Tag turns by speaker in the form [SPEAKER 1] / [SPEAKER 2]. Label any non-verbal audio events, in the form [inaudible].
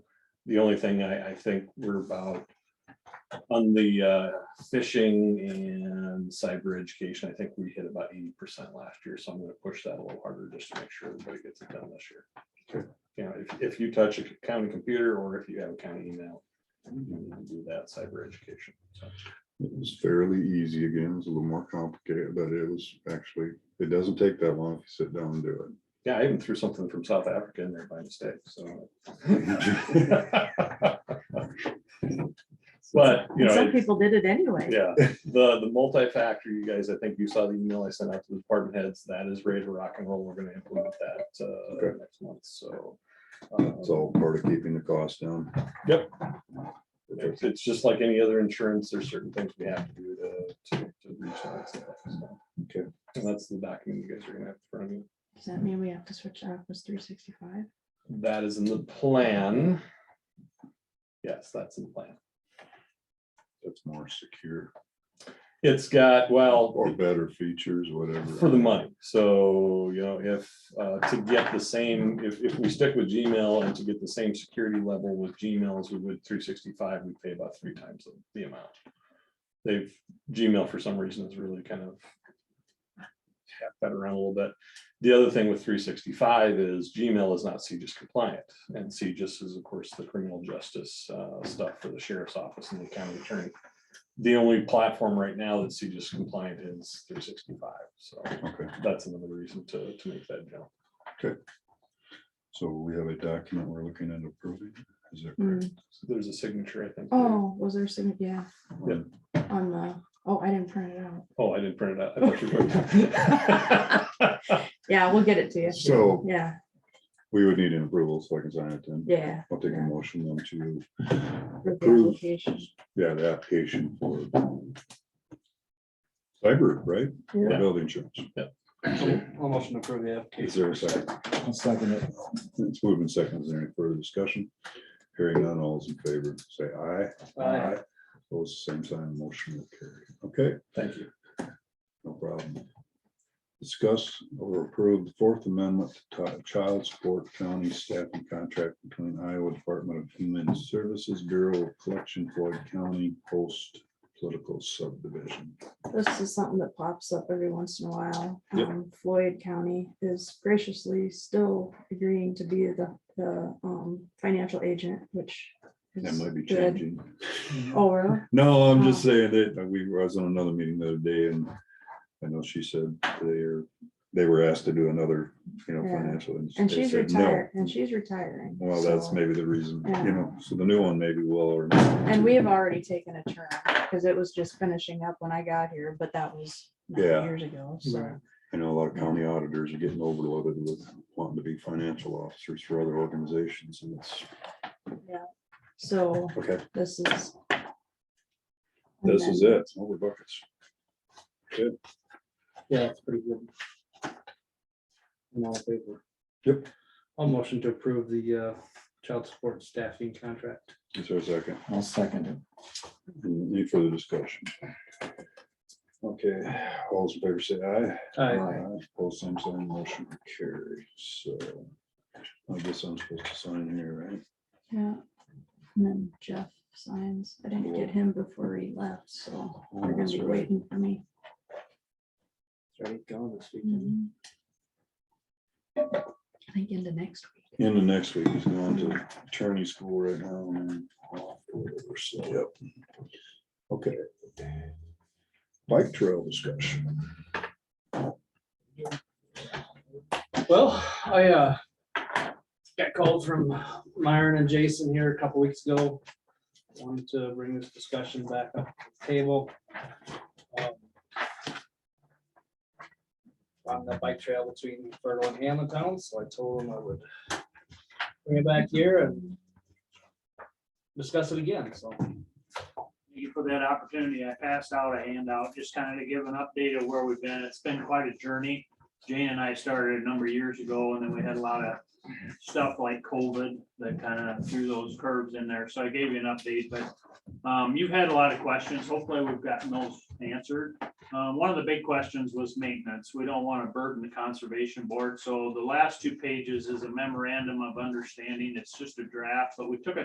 [SPEAKER 1] the only thing I, I think we're about on the uh, fishing and cyber education, I think we hit about eighty percent last year, so I'm gonna push that a little harder just to make sure everybody gets it done this year.
[SPEAKER 2] Okay.
[SPEAKER 1] You know, if, if you touch a county computer or if you have a county email, you need to do that cyber education. So,
[SPEAKER 2] It was fairly easy again. It's a little more complicated, but it was actually, it doesn't take that long if you sit down and do
[SPEAKER 1] Yeah, I even threw something from South Africa in there by mistake, so. [laughs] But, you know.
[SPEAKER 3] Some
[SPEAKER 1] it's-
[SPEAKER 3] people did it anyway.
[SPEAKER 2] [laughs]
[SPEAKER 1] Yeah, the, the multi-factor, you guys, I think you saw the email I sent out to the department heads, that is ready to rock and roll, we're gonna implement that, uh,
[SPEAKER 2] Okay.
[SPEAKER 1] next month, so.
[SPEAKER 2] it. It's
[SPEAKER 1] um,
[SPEAKER 2] all part of keeping the cost down.
[SPEAKER 1] It's, it's just like any other insurance, there's certain things we have to do to, to, to reach that. stuff, so.
[SPEAKER 2] Okay.
[SPEAKER 1] And that's the document you guys are gonna have in front of you.
[SPEAKER 3] Does that mean we have to switch Office three sixty-five?
[SPEAKER 1] That is in the plan. Yes, that's in the plan.
[SPEAKER 2] That's more secure
[SPEAKER 1] It's got, well.
[SPEAKER 2] or better features, whatever.
[SPEAKER 1] For the money, so, you know, if, uh, to get the same, if, if we stick with Gmail and to get the same security level with Gmail as we would three sixty-five, we pay about three times the- the amount. They've, Gmail for some reason is really kind of tap that around a little bit. The other thing with three sixty-five is Gmail is not CGIS compliant, and CGIS is, of course, the criminal justice, uh, stuff for the sheriff's office and the county attorney. The only platform right now that's CGIS compliant is three sixty-five, so
[SPEAKER 2] Okay,
[SPEAKER 1] that's another reason to, to make that jump.
[SPEAKER 2] so we have a document we're looking at approving. Is that
[SPEAKER 3] Hmm.
[SPEAKER 2] correct?
[SPEAKER 1] There's a signature, I think. there.
[SPEAKER 3] Oh, was there some, yeah,
[SPEAKER 1] Yeah.
[SPEAKER 3] on the, oh, I didn't print it out.
[SPEAKER 1] Oh, I didn't print it out. I thought you printed it.
[SPEAKER 3] Yeah, we'll get it to you.
[SPEAKER 2] So
[SPEAKER 3] Yeah,
[SPEAKER 2] we would need an approval so I can sign it then.
[SPEAKER 3] yeah.
[SPEAKER 2] I'll take a motion then to,
[SPEAKER 3] with the
[SPEAKER 2] Approve.
[SPEAKER 3] application.
[SPEAKER 2] yeah, the application for cyber, right? Or
[SPEAKER 1] Yeah.
[SPEAKER 2] Building insurance.
[SPEAKER 4] I'll motion to approve the
[SPEAKER 2] Is
[SPEAKER 4] application.
[SPEAKER 2] there a second?
[SPEAKER 5] I'll second it.
[SPEAKER 2] It's moving seconds. Is there any further discussion? Hearing none, all's in favor, say aye.
[SPEAKER 4] Aye.
[SPEAKER 2] Those same sign, motion will carry. Okay,
[SPEAKER 1] Thank you.
[SPEAKER 2] no problem. Discuss or approve the Fourth Amendment to Ti- Child Support County Staffing Contract between Iowa Department of Human Services Bureau of Collection Floyd County Post Political Subdivision.
[SPEAKER 3] This is something that pops up every once in a while.
[SPEAKER 2] Yep.
[SPEAKER 3] Um, Floyd County is graciously still agreeing to be the, the, um, financial agent, which. is
[SPEAKER 2] That might be
[SPEAKER 3] good.
[SPEAKER 2] changing.
[SPEAKER 3] Oh, really?
[SPEAKER 2] No, I'm
[SPEAKER 3] Oh.
[SPEAKER 2] just saying that we was on another meeting the other day and I know she said they're, they were asked to do another, you know,
[SPEAKER 3] Yeah.
[SPEAKER 2] financial.
[SPEAKER 3] And
[SPEAKER 2] they
[SPEAKER 3] she's
[SPEAKER 2] said, "No."
[SPEAKER 3] retired, and she's retiring.
[SPEAKER 2] Well, that's
[SPEAKER 3] so-
[SPEAKER 2] maybe the reason,
[SPEAKER 3] Yeah.
[SPEAKER 2] you know, so the new one maybe will. or-
[SPEAKER 3] And we have already taken a turn, because it was just finishing up when I got here, but that was nine
[SPEAKER 2] Yeah.
[SPEAKER 3] years ago, so.
[SPEAKER 5] Right.
[SPEAKER 2] I know a lot of county auditors are getting overloaded with wanting to be financial officers for other organizations and it's,
[SPEAKER 3] So
[SPEAKER 2] okay,
[SPEAKER 3] this is. and
[SPEAKER 2] this is
[SPEAKER 3] then-
[SPEAKER 2] it, over buckets.
[SPEAKER 4] Yeah, it's pretty good. I'm all in favor.
[SPEAKER 2] Yep.
[SPEAKER 4] I'll motion to approve the uh, child support staffing contract.
[SPEAKER 2] Is there a second?
[SPEAKER 5] I'll second it.
[SPEAKER 2] Any further discussion? Okay, all those in favor say aye.
[SPEAKER 4] Aye.
[SPEAKER 2] Both same sign, motion carries. So I guess I'm supposed to sign here, right?
[SPEAKER 3] Yeah. And then Jeff signs. I didn't get him before he left, so
[SPEAKER 2] Oh,
[SPEAKER 3] they're gonna
[SPEAKER 2] that's
[SPEAKER 3] be
[SPEAKER 2] right.
[SPEAKER 3] waiting for me.
[SPEAKER 4] Sorry, gone this weekend.
[SPEAKER 3] Mhm. I think into next week.
[SPEAKER 2] In the next week, he's going to attorney school right now. and whatever, so, Yep. Okay. Bike trail discussion.
[SPEAKER 4] Well, I uh, got called from Myron and Jason here a couple weeks ago. Wanted to bring this discussion back up to the table. Um, On the bike trail between Fertile and Hamlet Town, so I told him I would bring it back here and discuss it again, so.
[SPEAKER 6] Thank you for that opportunity. I passed out a handout, just kind of to give an update of where we've been. It's been quite a journey. Jane and I started a number of years ago, and then we had a lot of stuff like COVID that kind of threw those curves in there. So I gave you an update, but um, you've had a lot of questions. Hopefully, we've gotten those answered. Um, One of the big questions was maintenance. We don't want to burden the conservation board. So the last two pages is a memorandum of understanding. It's just a draft, but we took a